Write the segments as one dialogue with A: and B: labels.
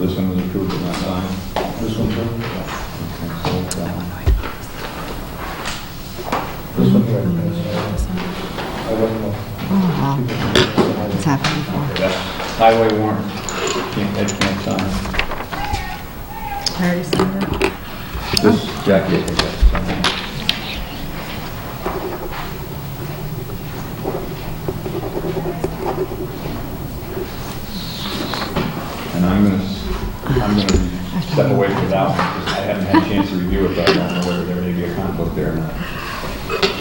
A: This one was approved at that time. This one, too? This one here, uh, I wasn't,
B: Oh, It's happened before.
A: that's highway warrant, can't, that can't sign.
B: I already signed it.
A: This, Jackie, I think that's something. And I'm gonna, s- I'm gonna step away from that one, because I haven't had a chance to review it, but I don't know whether there may be a conflict there or not.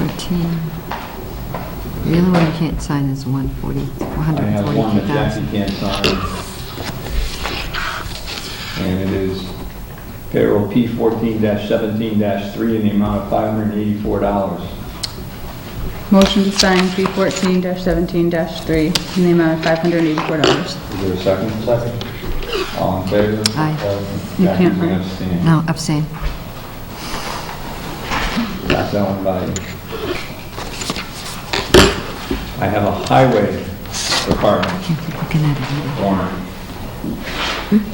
B: Thirteen. The other one you can't sign is one forty, one
A: I
B: hundred and
A: have one
B: forty-two
A: that Jackie
B: thousand.
A: can't sign. And it is payroll P fourteen seventeen three in the amount of five hundred and eighty-four dollars.
C: Motion to sign P fourteen seventeen three in the amount of five hundred and eighty-four dollars.
A: Is there a second? Second. All in favor?
B: Aye.
C: You
A: Jackie's
C: can't,
A: gonna
C: right?
A: abstain.
B: No, abstain.
A: That's that one by you. I have a highway department
B: Can't keep looking at it either.
A: warrant.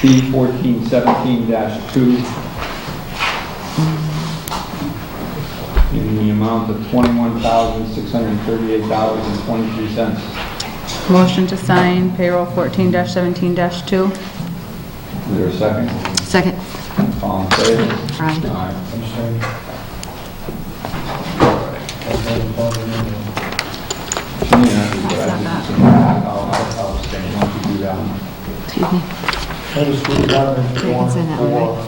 A: P fourteen seventeen two. In the amount of twenty-one thousand, six hundred and thirty-eight dollars and twenty-three cents.
C: Motion to sign payroll fourteen seventeen two.
A: Is there a second?
B: Second,
A: All in favor?
B: Aye.
A: Aye. She may not be, but I think it's- I'll, I'll, I'll abstain. Why don't you do that one?
B: excuse me.
D: That is for the government
B: Yeah, it's in that one, right?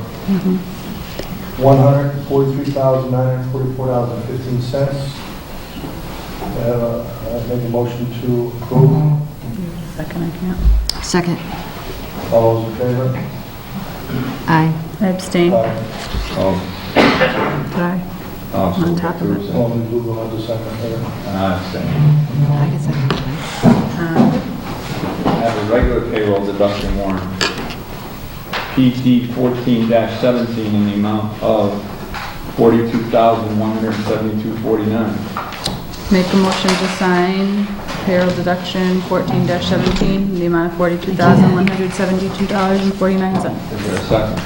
D: One hundred forty-three thousand, nine hundred forty-four dollars and fifteen cents. Uh, I make a motion to approve.
C: Second, I can't.
B: Second,
D: All those in favor?
B: aye.
C: I abstain.
D: Aye.
A: Oh,
C: Aye.
A: oh, so
C: On top of it.
A: approved, so-
D: Only Google has a second there.
A: And I abstain.
B: I guess I can second.
A: I have a regular payroll deduction warrant, PD fourteen seventeen in the amount of forty-two thousand, one hundred and seventy-two forty-nine.
C: Make a motion to sign payroll deduction fourteen seventeen in the amount of forty-two thousand, one hundred seventy-two dollars and forty-nine cents.
A: Is there a second?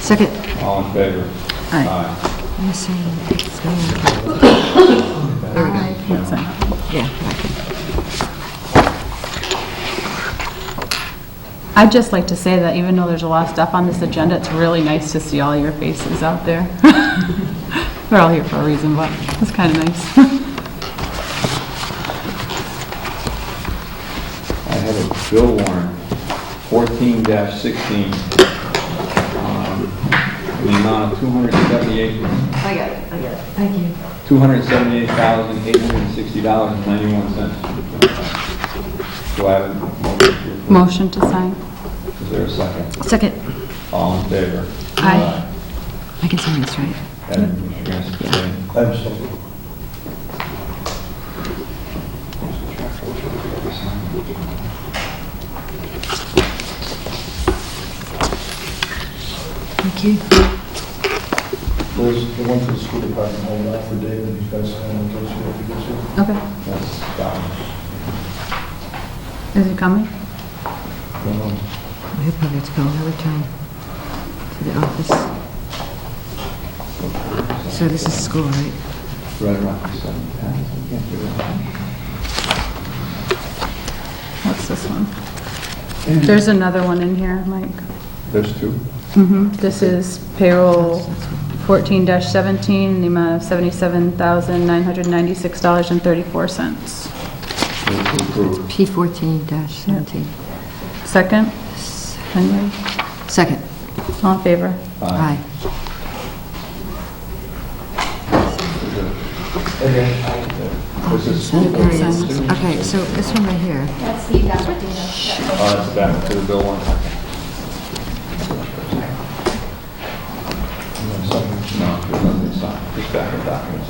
B: Second,
A: All in favor? Aye.
B: I'm saying, it's going-
C: I can't sign.
B: yeah, I can.
C: I'd just like to say that even though there's a lot of stuff on this agenda, it's really nice to see all your faces out there. We're all here for a reason, but it's kind of nice.
A: I have a bill warrant, fourteen sixteen, in the amount of two hundred and seventy-eight,
B: I got it, I got it. Thank you.
A: two hundred and seventy-eight thousand, eight hundred and sixty dollars and ninety-one cents. Do I have a motion? to approve?
C: Motion to sign.
A: Is there a second?
B: Second,
A: All in favor?
C: Aye.
B: I can sign this, right?
A: And Mr. Gasko, abstain.
D: I'm sorry.
B: Thank you.
D: There's the one for the school department, hold that for David, he's got to sign it, goes here, if he gets here.
C: Okay.
A: That's down.
C: Is it coming?
D: Um,
B: We'll probably have to go another time to the office. So this is school, right?
A: Right around the seven times. I can't do that.
C: What's this one? There's another one in here, Mike.
A: There's two.
B: Mm-hmm.
C: This is payroll fourteen seventeen, the amount of seventy-seven thousand, nine hundred ninety-six dollars and thirty-four cents.
A: Move to approve.
B: P fourteen dash seventeen.
C: Second, Henry,
B: Second,
C: all in favor?
B: aye.
A: This is
B: There
A: school board.
B: it is. Okay, so this one right here,
E: That's the Valentino.
A: Oh, that's back to the bill one. No, there's nothing signed. Just back of documents.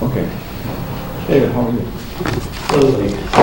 A: Okay. David, how are you?
F: Totally.